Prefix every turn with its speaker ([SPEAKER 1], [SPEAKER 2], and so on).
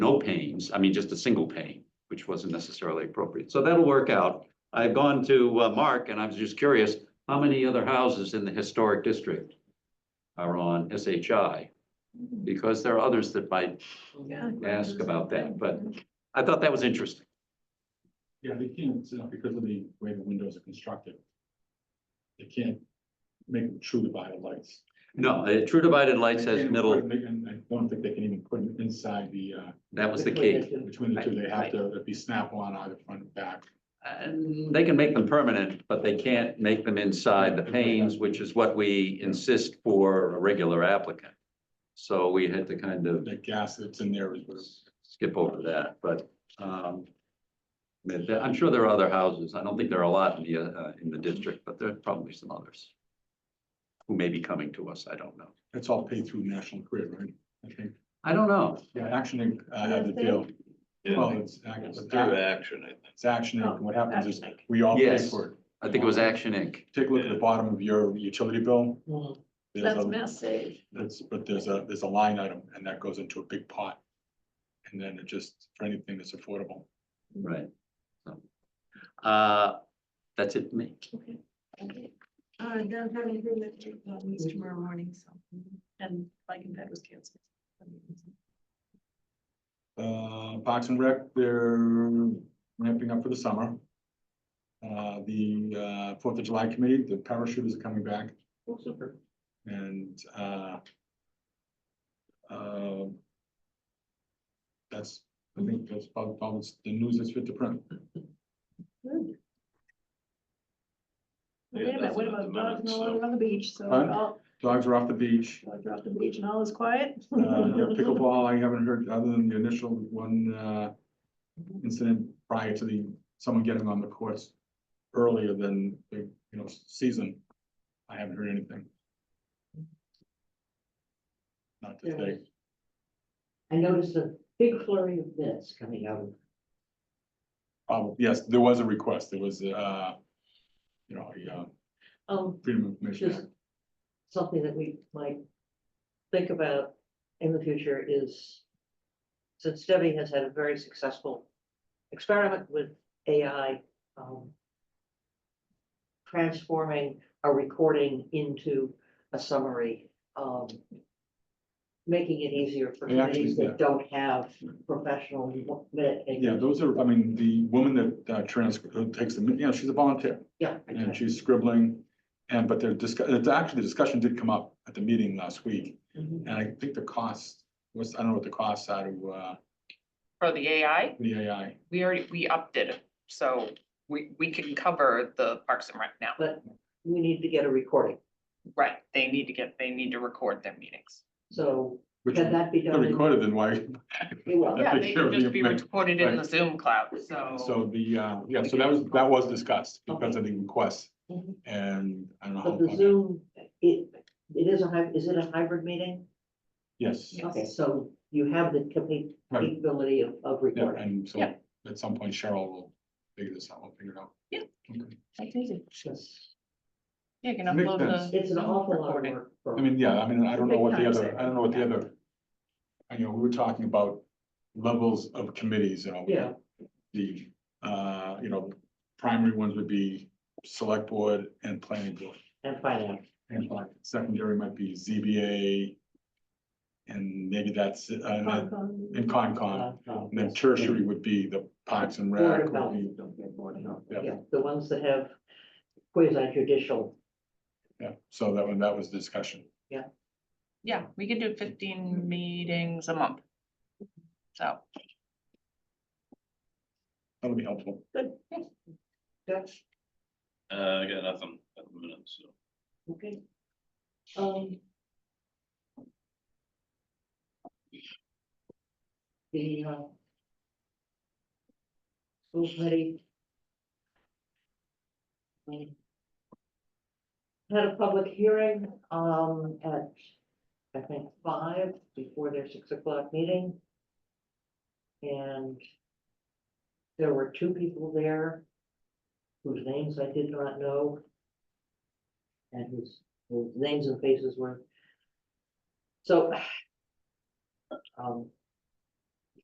[SPEAKER 1] no panes, I mean, just a single pane, which wasn't necessarily appropriate. So that'll work out. I've gone to uh, Mark and I was just curious, how many other houses in the historic district are on SHI? Because there are others that might ask about that, but I thought that was interesting.
[SPEAKER 2] Yeah, they can't, uh, because of the way the windows are constructed. They can't make them true divided lights.
[SPEAKER 1] No, uh, true divided lights
[SPEAKER 2] They
[SPEAKER 1] has
[SPEAKER 2] can't
[SPEAKER 1] middle,
[SPEAKER 2] put them- And I don't think they can even put them inside the, uh,
[SPEAKER 1] that was the key.
[SPEAKER 2] between the two, they have to it'd be snap on either front and back.
[SPEAKER 1] And they can make them permanent, but they can't make them inside the panes, which is what we insist for a regular applicant. So we had to kind of
[SPEAKER 2] The gas that's in there is what it's-
[SPEAKER 1] skip over that, but, um, but there- I'm sure there are other houses. I don't think there are a lot in the, uh, in the district, but there are probably some others who may be coming to us. I don't know.
[SPEAKER 2] that's all paid through National Grid, right? I think,
[SPEAKER 1] I don't know.
[SPEAKER 2] yeah, Action Inc. uh, had the deal. Well,
[SPEAKER 3] Yeah,
[SPEAKER 2] it's, Ac-
[SPEAKER 3] it's
[SPEAKER 2] it's
[SPEAKER 3] through
[SPEAKER 2] Ac-
[SPEAKER 3] action, I think.
[SPEAKER 2] it's Oh, Action Inc. What happens is we all pay
[SPEAKER 1] Yes.
[SPEAKER 2] for it.
[SPEAKER 1] I think it was Action Inc.
[SPEAKER 2] Take a look at the bottom of your utility bill. There's
[SPEAKER 4] That's
[SPEAKER 2] a-
[SPEAKER 4] massive.
[SPEAKER 2] That's, but there's a, there's a line item and that goes into a big pot. And then it just, for anything that's affordable.
[SPEAKER 1] Right. So, Uh, that's it, for me.
[SPEAKER 4] Okay. Uh, I don't have anything that uh, meets tomorrow morning, so, and bike and ped was canceled.
[SPEAKER 2] Uh, Parks and Rec, they're ramping up for the summer. Uh, the, uh, Fourth of July committee, the parachuters are coming back and, uh, uh, that's, I think that's about, all that's the news that's fit to print.
[SPEAKER 4] Good.
[SPEAKER 3] Yeah,
[SPEAKER 4] Wait a minute,
[SPEAKER 3] that's
[SPEAKER 4] what
[SPEAKER 3] about
[SPEAKER 4] about dogs and
[SPEAKER 3] the minutes,
[SPEAKER 4] all
[SPEAKER 3] so.
[SPEAKER 4] over on the beach, so,
[SPEAKER 2] Huh?
[SPEAKER 4] all-
[SPEAKER 2] Dogs are off the beach.
[SPEAKER 4] I dropped the beach and all is quiet?
[SPEAKER 2] Uh, yeah, pickleball, I haven't heard, other than the initial one, uh, incident prior to the, someone getting on the course earlier than the, you know, season. I haven't heard anything. Not to say,
[SPEAKER 5] I noticed a big flurry of bids coming out.
[SPEAKER 2] oh, yes, there was a request, there was, uh, you know, a, uh,
[SPEAKER 5] Um,
[SPEAKER 2] Freedom of Information
[SPEAKER 5] just
[SPEAKER 2] Act.
[SPEAKER 5] something that we might think about in the future is since Debbie has had a very successful experiment with AI, um, transforming a recording into a summary, um, making it easier for
[SPEAKER 2] They actually
[SPEAKER 5] committees
[SPEAKER 2] did.
[SPEAKER 5] that don't have professional minute
[SPEAKER 2] Yeah,
[SPEAKER 5] takers.
[SPEAKER 2] those are, I mean, the woman that, uh, trans, who takes the, you know, she's a volunteer.
[SPEAKER 5] Yeah.
[SPEAKER 2] and she's scribbling. And but they're discuss, it's actually, the discussion did come up at the meeting last week,
[SPEAKER 5] Mhm.
[SPEAKER 2] and I think the cost was, I don't know what the costs are to uh
[SPEAKER 6] For the AI,
[SPEAKER 2] the AI.
[SPEAKER 6] we already, we upped it, so we, we can cover the Parks and Rec now.
[SPEAKER 5] We need to get a recording,
[SPEAKER 6] Right, they need to get, they need to record their meetings.
[SPEAKER 5] so
[SPEAKER 2] Which
[SPEAKER 5] Can
[SPEAKER 2] if
[SPEAKER 5] that be
[SPEAKER 2] they're
[SPEAKER 5] done? in-
[SPEAKER 2] recorded, then why?
[SPEAKER 5] it will.
[SPEAKER 2] Yeah,
[SPEAKER 6] Yeah,
[SPEAKER 2] they
[SPEAKER 6] they can
[SPEAKER 2] should
[SPEAKER 6] just
[SPEAKER 2] be
[SPEAKER 6] be
[SPEAKER 2] made-
[SPEAKER 6] recorded in the
[SPEAKER 2] right.
[SPEAKER 6] Zoom cloud, so.
[SPEAKER 2] So the uh, yeah, so that was, that was discussed because of the request,
[SPEAKER 5] Mhm.
[SPEAKER 2] and I don't know. how
[SPEAKER 5] But the
[SPEAKER 2] long it-
[SPEAKER 5] Zoom, it, it is a hy, is it a hybrid meeting?
[SPEAKER 2] Yes,
[SPEAKER 6] Yes.
[SPEAKER 5] Okay, so you have the capa-
[SPEAKER 2] Right.
[SPEAKER 5] capability of, of
[SPEAKER 2] yeah,
[SPEAKER 5] recording.
[SPEAKER 2] and so
[SPEAKER 6] Yeah.
[SPEAKER 2] at some point Cheryl will figure this out, we'll figure it out.
[SPEAKER 6] Yeah.
[SPEAKER 2] Okay.
[SPEAKER 5] It's
[SPEAKER 6] You can
[SPEAKER 2] Makes
[SPEAKER 6] upload
[SPEAKER 2] sense.
[SPEAKER 6] the.
[SPEAKER 5] it's an
[SPEAKER 6] Zoom
[SPEAKER 5] awful lot of
[SPEAKER 6] recording.
[SPEAKER 5] work. for-
[SPEAKER 2] I mean, yeah, I mean, I don't know
[SPEAKER 4] Big
[SPEAKER 2] what the
[SPEAKER 4] time
[SPEAKER 2] other,
[SPEAKER 4] saving.
[SPEAKER 2] I don't know what the other, I know, we were talking about levels of committees, you know. we-
[SPEAKER 5] Yeah.
[SPEAKER 2] The, uh, you know, primary ones would be select board and planning board.
[SPEAKER 5] And finance,
[SPEAKER 2] And like secondary might be ZBA. And maybe that's, uh, and
[SPEAKER 4] Hong
[SPEAKER 2] then-
[SPEAKER 4] Kong.
[SPEAKER 2] and Concom,
[SPEAKER 5] uh, um,
[SPEAKER 2] and then tertiary would be the Parks and
[SPEAKER 5] Board
[SPEAKER 2] Rec.
[SPEAKER 5] of
[SPEAKER 2] would
[SPEAKER 5] Health.
[SPEAKER 2] be- yeah.
[SPEAKER 5] Yeah, the ones that have quasi judicial,
[SPEAKER 2] Yeah, so that one, that was discussion.
[SPEAKER 6] Yeah, we can do fifteen meetings a month. So,
[SPEAKER 2] That'll be helpful.
[SPEAKER 5] that's,
[SPEAKER 3] Uh, I got nothing at the minute, so.
[SPEAKER 5] okay. Um. The, uh. School committee. um, Had a public hearing, um, at, I think, five before their six o'clock meeting. And. There were two people there. Whose names I did not know. And whose, whose names and faces were. So. Um,